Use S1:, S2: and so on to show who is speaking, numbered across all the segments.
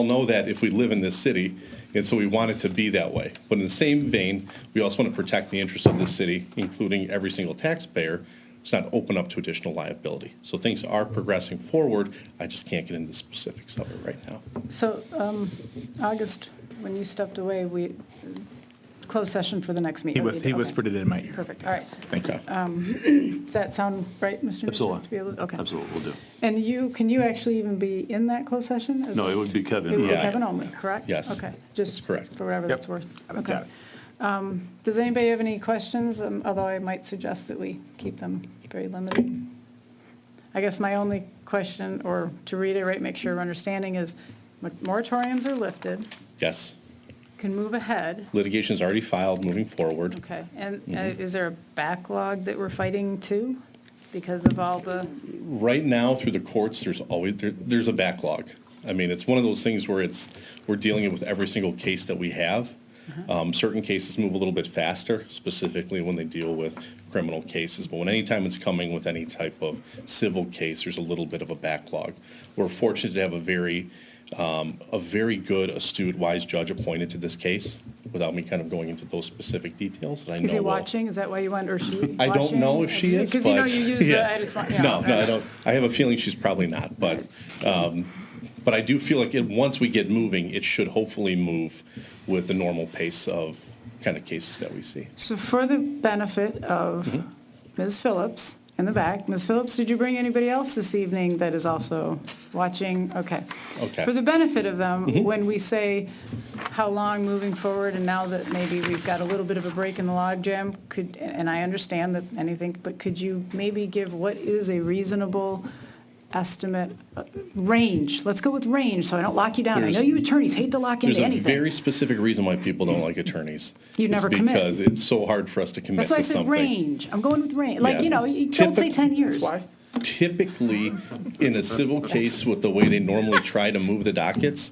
S1: all know that if we live in this city, and so we want it to be that way. But in the same vein, we also want to protect the interests of the city, including every single taxpayer, to not open up to additional liability. So things are progressing forward. I just can't get into the specifics of it right now.
S2: So, um, August, when you stepped away, we, closed session for the next meeting.
S3: He whis- he
S2: Okay.
S3: whispered it in my ear.
S2: Perfect, all right. Um,
S3: Thank you.
S2: Does that sound right, Mr. Nusrat,
S4: Absolutely.
S2: to be able- Okay.
S4: Absolutely, we'll do.
S2: And you, can you actually even be in that closed session? Is
S4: No, it would be Kevin.
S2: It would be
S1: Yeah.
S2: Kevin only, correct?
S1: Yes.
S2: Okay,
S1: That's
S2: just for
S1: correct.
S2: whatever that's worth.
S3: Got it,
S2: Okay.
S3: got it.
S2: Um, Does anybody have any questions? Um, Although I might suggest that we keep them very limited. I guess my only question, or to reiterate, make sure we're understanding, is moratoriums are lifted,
S1: Yes,
S2: can move ahead,
S1: litigation is already filed, moving forward.
S2: okay? And uh,
S1: Mm-hmm.
S2: is there a backlog that we're fighting to because of all the,
S1: Right now, through the courts, there's always, there, there's a backlog. I mean, it's one of those things where it's, we're dealing with every single case that we have.
S2: Uh-huh.
S1: Um, certain cases move a little bit faster, specifically when they deal with criminal cases. But when any time it's coming with any type of civil case, there's a little bit of a backlog. We're fortunate to have a very, um, a very good, astute, wise judge appointed to this case, without me kind of going into those specific details that I know.
S2: is he
S1: will-
S2: watching? Is that why you want, or is she
S1: I don't know if she is,
S2: Because you know
S1: but-
S2: you use the,
S1: yeah.
S2: I just want, yeah.
S1: No, no, I
S2: okay.
S1: don't. I have a feeling she's probably not, but, um, but I do feel like it, once we get moving, it should hopefully move with the normal pace of kind of cases that we see.
S2: So for the benefit
S1: Mm-hmm.
S2: of Ms. Phillips in the back, Ms. Phillips, did you bring anybody else this evening that is also watching? Okay.
S1: Okay. Mm-hmm.
S2: For the benefit of them, when we say how long moving forward, and now that maybe we've got a little bit of a break in the logjam, could, and I understand that anything, but could you maybe give what is a reasonable estimate, uh, range? Let's go with range, so I don't lock you down. I know
S1: There's-
S2: you attorneys hate to lock
S1: There's
S2: into
S1: a
S2: anything.
S1: very specific reason why people don't like attorneys.
S2: You
S1: It's
S2: never commit.
S1: Because it's so hard for us to commit to
S2: That's why I
S1: something.
S2: said range. I'm going with range. Like,
S1: Yeah.
S2: you know, you don't say
S1: Typic-
S2: 10 years.
S1: typically, in a civil case with the way they normally try to move the dockets,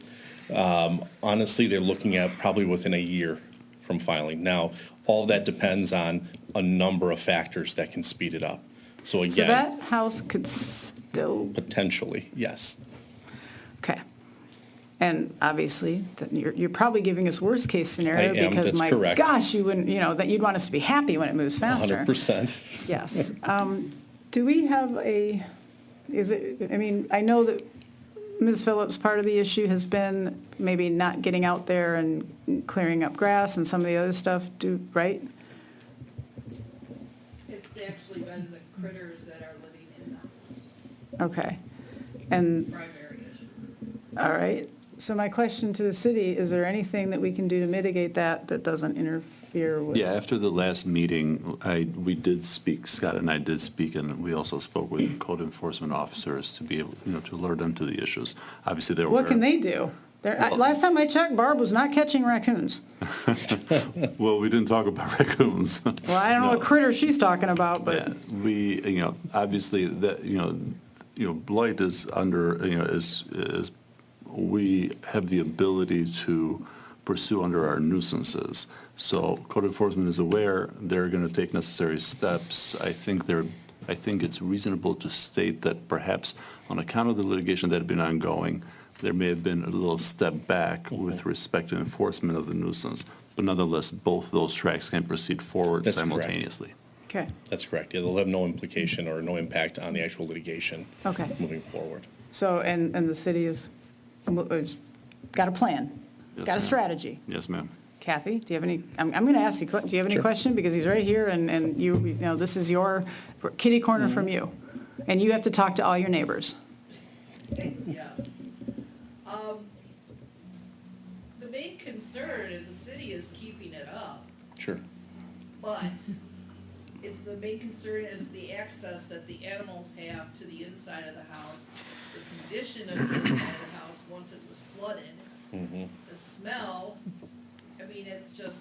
S1: um, honestly, they're looking at probably within a year from filing. Now, all that depends on a number of factors that can speed it up. So
S2: So
S1: again,
S2: that house could still,
S1: potentially, yes.
S2: okay. And obviously, that you're, you're probably giving us worst-case scenario.
S1: I am.
S2: Because
S1: That's
S2: my
S1: correct.
S2: gosh, you wouldn't, you know, that you'd want us to be happy when it moves faster.
S1: 100%.
S2: Yes. Um, Do we have a, is it, I mean, I know that Ms. Phillips, part of the issue has been maybe not getting out there and clearing up grass and some of the other stuff, do, right?
S5: It's actually been the critters that are living in the house,
S2: Okay. And
S5: primary issue.
S2: All right, so my question to the city, is there anything that we can do to mitigate that that doesn't interfere with?
S4: Yeah, after the last meeting, I, we did speak, Scott and I did speak, and we also spoke with code enforcement officers to be able, you know, to alert them to the issues. Obviously, they're aware.
S2: What can they do? There, I- last time I checked, Barb was not catching raccoons.
S4: Well, we didn't talk about raccoons.
S2: Well, I don't know what
S4: No.
S2: critter she's talking about, but,
S4: Yeah, we, you know, obviously, that, you know, you know, blight is under, you know, is, is, we have the ability to pursue under our nuisances. So code enforcement is aware, they're going to take necessary steps. I think they're, I think it's reasonable to state that perhaps on account of the litigation that had been ongoing, there may have been a little step back with respect to enforcement of the nuisance. But nonetheless, both those tracks can proceed forward
S1: That's correct.
S4: simultaneously.
S2: okay,
S1: That's correct. Yeah, they'll have no implication or no impact on the actual litigation
S2: Okay.
S1: moving forward.
S2: so, and, and the city is, is- got a plan,
S4: Yes,
S2: got a
S4: ma'am.
S2: strategy.
S4: Yes, ma'am.
S2: Kathy, do you have any, I'm, I'm going to ask you, que- do you have any
S1: Sure.
S2: question? Because he's right here, and, and you, you know, this is your kitty
S4: Mm-hmm.
S2: corner from you, and you have to talk to all your neighbors.
S5: Yes. Um, The main concern in the city is keeping it up,
S1: Sure.
S5: but it's the main concern is the access that the animals have to the inside of the house, the condition of the inside of the house once it was flooded, the smell, I mean, it's just,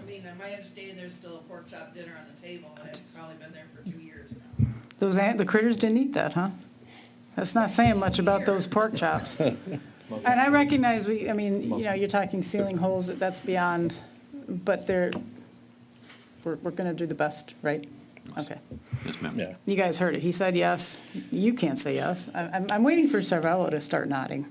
S5: I mean, in my understanding, there's still a pork chop dinner on the table, and it's probably been there for two years now.
S2: Those, ant- the critters didn't eat that, huh? That's not saying much about those pork chops. And I recognize we, I mean, you know, you're talking ceiling holes, that's beyond, but they're, we're, we're going to do the best, right? Okay.
S4: Yes, ma'am.
S1: Yeah.
S2: You guys heard it. He said yes. You can't say yes. I- I'm, I'm waiting for Cervello to start nodding.